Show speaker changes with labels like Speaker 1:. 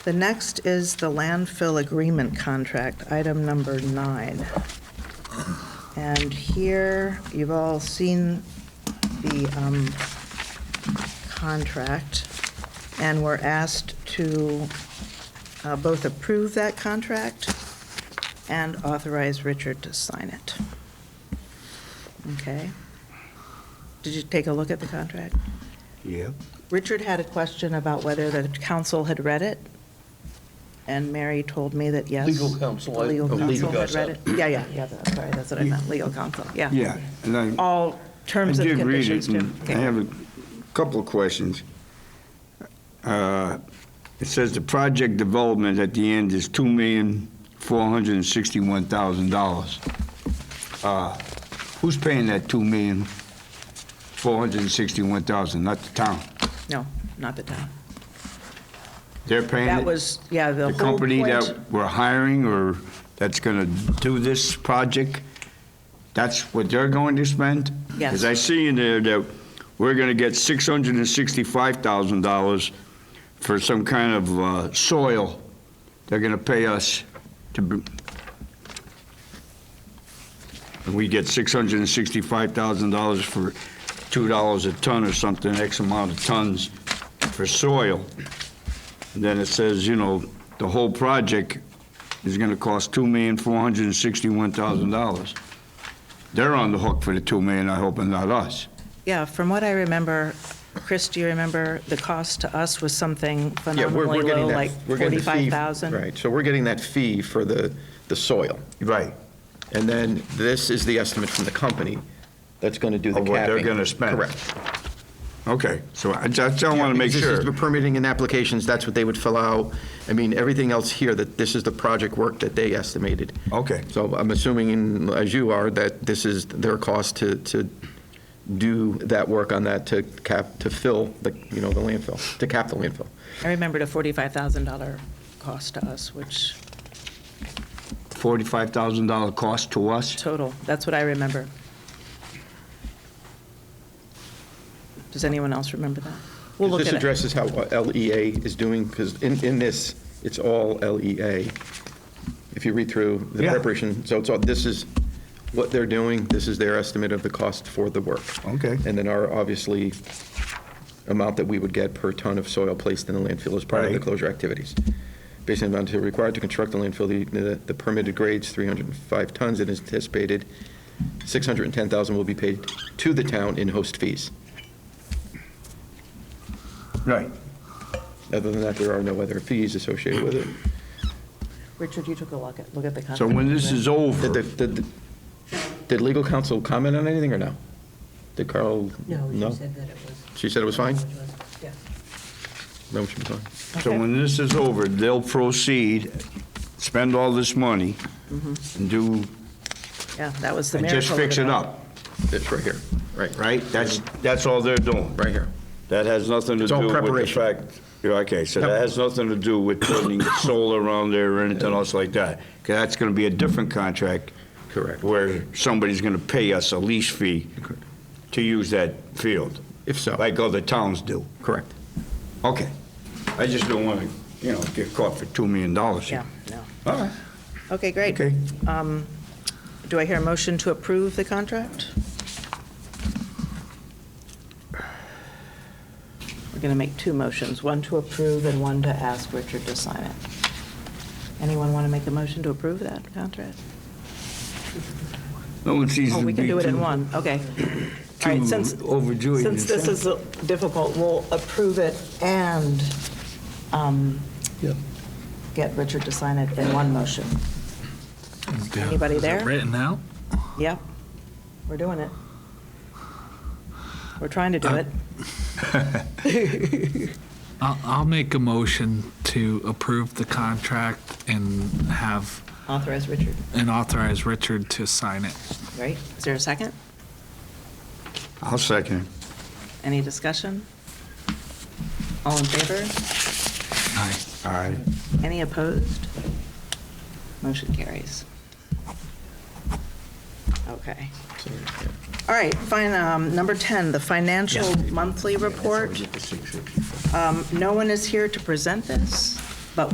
Speaker 1: The next is the landfill agreement contract, item number nine. And here, you've all seen the um, contract, and we're asked to uh, both approve that contract and authorize Richard to sign it. Okay? Did you take a look at the contract?
Speaker 2: Yeah.
Speaker 1: Richard had a question about whether the council had read it, and Mary told me that yes.
Speaker 3: Legal counsel,
Speaker 1: the
Speaker 3: I-
Speaker 1: Legal
Speaker 3: oh, legal
Speaker 1: counsel had
Speaker 3: counsel.
Speaker 1: read it. Yeah, yeah, yeah, that's- sorry, that's what I meant, legal counsel, yeah.
Speaker 2: Yeah, and I-
Speaker 1: All
Speaker 2: I
Speaker 1: terms and
Speaker 2: did read
Speaker 1: conditions,
Speaker 2: it,
Speaker 1: too.
Speaker 2: and I
Speaker 1: Okay.
Speaker 2: have a couple of questions. Uh, It says the project development at the end is $2,461,000. Uh, Who's paying that $2,461,000? Not the town?
Speaker 1: No, not the town.
Speaker 2: They're paying it?
Speaker 1: That was, yeah, the
Speaker 2: The
Speaker 1: whole
Speaker 2: company
Speaker 1: point-
Speaker 2: that we're hiring or that's going to do this project? That's what they're going to spend?
Speaker 1: Yes.
Speaker 2: Because I see in there that we're going to get $665,000 for some kind of uh, soil they're going to pay us to, br- and we get $665,000 for $2 a ton or something, X amount of tons for soil. And then it says, you know, the whole project is going to cost $2,461,000. They're on the hook for the 2 million, I hope, and not us.
Speaker 1: Yeah, from what I remember, Chris, do you remember, the cost to us was something
Speaker 3: Yeah, we're,
Speaker 1: phenomenally
Speaker 3: we're getting
Speaker 1: low,
Speaker 3: that.
Speaker 1: like
Speaker 3: we're getting the fee-
Speaker 1: 45,000?
Speaker 3: Right, so we're getting that fee for the, the soil.
Speaker 2: Right.
Speaker 3: And then this is the estimate from the company that's going to do the
Speaker 2: Of
Speaker 3: capping.
Speaker 2: what they're gonna spend.
Speaker 3: Correct.
Speaker 2: Okay, so I just, I want to make
Speaker 3: Because this
Speaker 2: sure.
Speaker 3: is the Permitting and applications, that's what they would fill out. I mean, everything else here, that this is the project work that they estimated.
Speaker 2: Okay.
Speaker 3: So I'm assuming, as you are, that this is their cost to, to do that work on that, to cap, to fill the, you know, the landfill, to cap the landfill.
Speaker 1: I remembered a $45,000 cost to us, which,
Speaker 2: $45,000 cost to us?
Speaker 1: total, that's what I remember. Does anyone else remember that? We'll look
Speaker 3: This
Speaker 1: at it.
Speaker 3: addresses how LEA is doing, because in, in this, it's all LEA. If you read through the
Speaker 2: Yeah.
Speaker 3: preparation, so it's all, this is what they're doing, this is their estimate of the cost for the work.
Speaker 2: Okay.
Speaker 3: And then our, obviously, amount that we would get per ton of soil placed in the landfill as part of the
Speaker 2: Right.
Speaker 3: closure activities. Based on the amount required to construct the landfill, the- the the permitted grade's 305 tons, and is anticipated 610,000 will be paid to the town in host fees.
Speaker 2: Right.
Speaker 3: Other than that, there are no other fees associated with it.
Speaker 1: Richard, you took a look at, look at the contract.
Speaker 2: So when this is
Speaker 3: Did,
Speaker 2: over,
Speaker 3: the- did, the- did legal counsel comment on anything or no? Did Carl?
Speaker 4: No, she said that it was.
Speaker 3: She said it was fine?
Speaker 4: Yeah.
Speaker 3: No, she was fine.
Speaker 2: so when this is over, they'll proceed, spend all this money, and do,
Speaker 1: Yeah, that was Mm-hmm. the
Speaker 2: and
Speaker 1: miracle.
Speaker 2: just
Speaker 1: of
Speaker 2: fix it
Speaker 1: all.
Speaker 2: up,
Speaker 3: It's right here, right, right,
Speaker 2: right? That's, that's all they're doing.
Speaker 3: right here.
Speaker 2: That has nothing to
Speaker 3: It's
Speaker 2: do
Speaker 3: all
Speaker 2: with the
Speaker 3: preparation.
Speaker 2: fact, Yeah, okay, so that
Speaker 3: Yep.
Speaker 2: has nothing to do with putting solar around there or anything else like that. 'Cause that's going to be a different contract.
Speaker 3: Correct.
Speaker 2: Where somebody's going to pay us a lease fee
Speaker 3: Correct.
Speaker 2: to use that field,
Speaker 3: If so,
Speaker 2: like other towns do.
Speaker 3: correct.
Speaker 2: Okay. I just don't want to, you know, get caught for $2 million.
Speaker 1: Yeah, no.
Speaker 2: All right,
Speaker 1: Okay, great.
Speaker 2: okay.
Speaker 1: Do I hear a motion to approve the contract? We're going to make two motions, one to approve and one to ask Richard to sign it. Anyone want to make a motion to approve that contract?
Speaker 2: No one sees
Speaker 1: Oh,
Speaker 2: to
Speaker 1: we can
Speaker 2: be
Speaker 1: do it in
Speaker 2: too-
Speaker 1: one, okay. All right,
Speaker 2: too
Speaker 1: since,
Speaker 2: overjoyed
Speaker 1: since
Speaker 2: and
Speaker 1: this is difficult, we'll approve it and um, get Richard to sign it in one motion. Anybody there?
Speaker 5: Written out?
Speaker 1: Yep, we're doing it. We're trying to do it.
Speaker 5: I'll, I'll make a motion to approve the contract and have,
Speaker 1: Authorize Richard,
Speaker 5: and authorize Richard to sign it.
Speaker 1: right? Is there a second?
Speaker 2: I'll second
Speaker 1: Any discussion? All in favor?
Speaker 5: Aye.
Speaker 2: it. All right.
Speaker 1: Any opposed? Motion carries. Okay. All right, fine, um, number 10, the financial monthly report. Um, No one is here to present this.